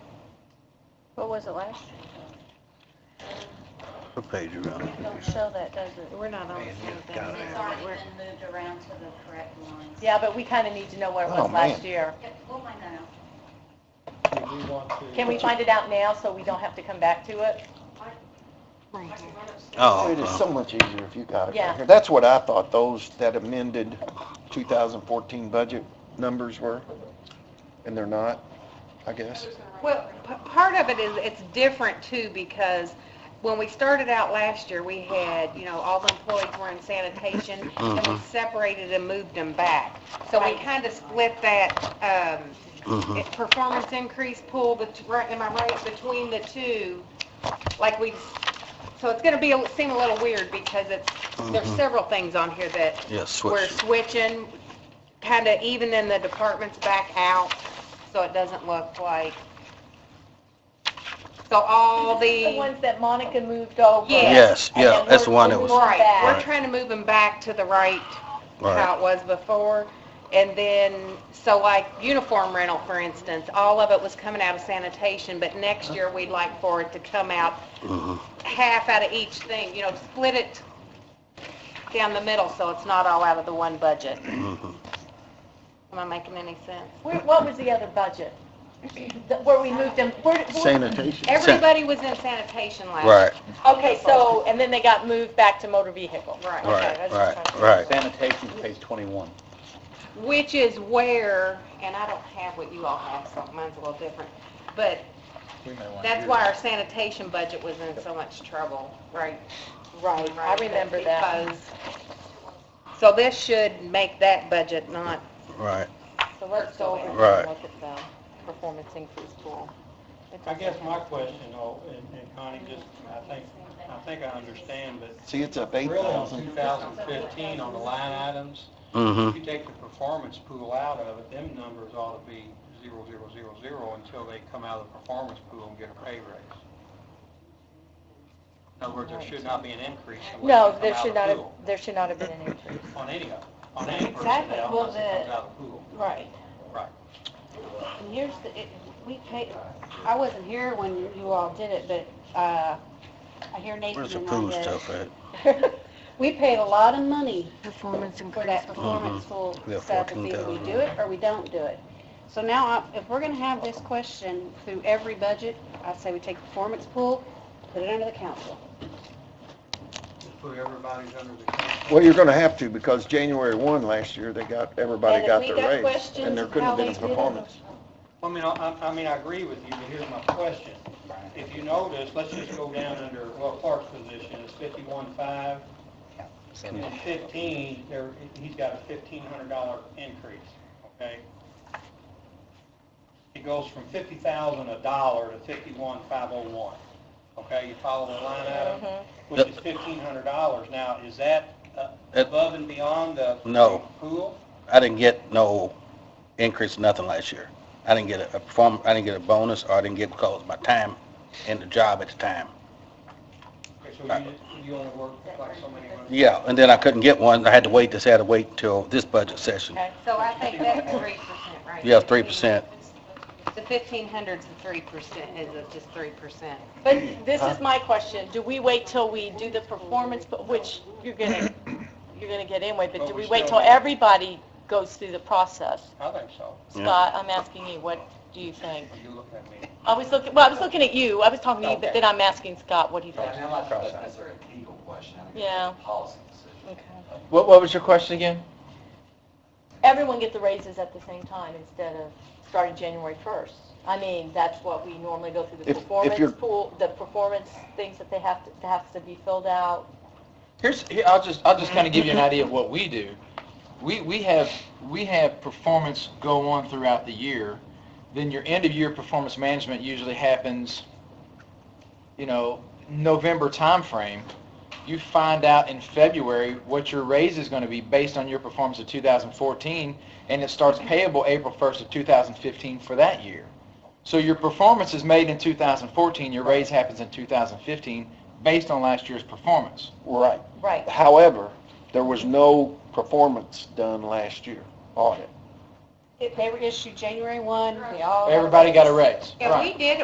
What was it last? year? What page are on? Don't show that, does it? We're not on the Man, same you've thing. got it. It's already been moved around to the correct ones. Yeah, but we kind of need to know what it Oh, was man. last year. Yep, we'll find that out. Do we want to? Can we find it out now so we don't have to come back to it? I can run upstairs. Oh, It is so oh, much easier if you got it Yeah. right here. That's what I thought those, that amended 2014 budget numbers were, and they're not, I guess. Well, p- part of it is, it's different too, because when we started out last year, we had, you know, all the employees were in sanitation, and we Mhm. separated and moved them back. So we kind of split that, um, mhm. it- performance increase pool, bet- right, am I right, between the two, like we, so it's gonna be, a- seem a little weird because it's, there's Mhm. several things on here that yeah, we're switch. switching, kinda evening the departments back out, so it doesn't look like, so all The the, ones that Monica moved over. Yes. Yes, yeah, And that's the we're- one that we're was- moving right, back. we're trying to move them back to the right how Right, it was before. And then, so like uniform rental, for instance, all of it was coming out of sanitation, but next year we'd like for it to come out mhm. half out of each thing, you know, split it down the middle so it's not all out of the one budget. Mhm. Am I making any sense? Where- What was the other budget? The- Where we moved them, where, where- Sanitation. Everybody was in sanitation last year. right, okay, so, and then they got moved back to motor vehicle. Right. Okay, right, that's what I'm right, talking right. Sanitation's page 21. Which is where, and I don't have what you all have, so mine's a little different, but We may want to That's do why that. our sanitation budget was in so much trouble, right? Right, I remember that. Because- So this should make that budget not, Right, So let's go over here Right. and look at the performance increase pool. It's I okay. guess my question, though, and and Connie, just, I think, I think I understand, but See, it's up really on 8,000. 2015, on the line items, if mhm, you take the performance pool out of it, them numbers ought to be zero, zero, zero, zero until they come out of the performance pool and get a pay raise. In other words, there should not be an increase No, unless they there come out should of the not have, pool. there should not have been an increase. On any of, on any Exactly. personnel, Well, unless it comes the- out of the pool. Right. Right. And here's the, it, we paid, I wasn't here when you all did it, but, uh, I hear Nathan where's the and pool I stuff at? did. We paid a lot of money for that performance pool Mm-hmm. Yeah, stuff, if either we 14,000. do it or we don't do it. So now, I- if we're gonna have this question through every budget, I say we take the performance pool, put it under the council. Just put everybody's under the, Well, you're going to have to, because January 1 last year, they got, everybody got their raise. And there couldn't have been a performance. I mean, I, I- I mean, I agree with you, but here's my question. If you notice, let's just go down under, well, Clark's position is fifty-one five, and fifteen, there, he's got a fifteen hundred dollar increase, okay? It goes from fifty thousand a dollar to fifty-one five oh one, okay? You follow the line Mm-hmm. item, which is fifteen hundred dollars. Now, is that uh, It- above and beyond the No. pool? I didn't get no increase, nothing last year. I didn't get a- a perform, I didn't get a bonus, or I didn't get because of my time in the job at the time. Okay, So you, you only work like so many months? Yeah, and then I couldn't get one, I had to wait, this had to wait until this budget session. so I think that's three percent, right? Yeah, three percent. The fifteen hundred's the three percent, is it just three percent? But this is my question, do we wait till we do the performance, but which you're gonna, you're gonna get anyway, but do we wait till everybody goes through the process? I think so. Yeah. Scott, I'm asking you, what do you think? You look at me. I was looking, well, I was looking at you, I was talking to you, but then I'm asking Scott, what do you think? I'm not sure that's necessarily a legal question, I think it's Yeah. a policy decision. Okay. What, what was your question again? Everyone get the raises at the same time instead of starting January 1st. I mean, that's what we normally go through, the If- if you're- performance pool, the performance things that they have to, that has to be filled out. Here's, here, I'll just, I'll just kind of give you an idea of what we do. We, we have, we have performance go on throughout the year, then your end-of-year performance management usually happens, you know, November timeframe. You find out in February what your raise is going to be based on your performance of 2014, and it starts payable April 1st of 2015 for that year. So your performance is made in 2014, your raise happens in 2015 based on last year's performance. Right. Right. However, there was no performance done last year, audit. They were issued January 1, they all. Everybody got a raise. Yeah, we did